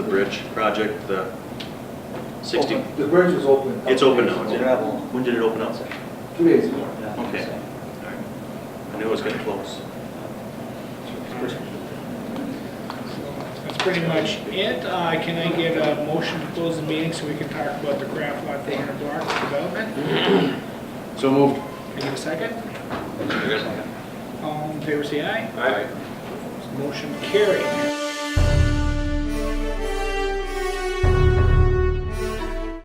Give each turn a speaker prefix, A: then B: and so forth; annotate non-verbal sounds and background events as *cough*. A: Bridge project, the 60,
B: Open. The bridge is open.
A: it's open now, is it?
B: Gravel,
A: When did it open up?
B: two days ago.
A: Okay. I knew it was getting close.
C: That's pretty much it. Uh, Can I get a motion to close the meeting so we can talk about the craft lot 400 block development?
A: *clears throat* So moved.
C: Can I get a second? All in favor, say aye. Motion carried.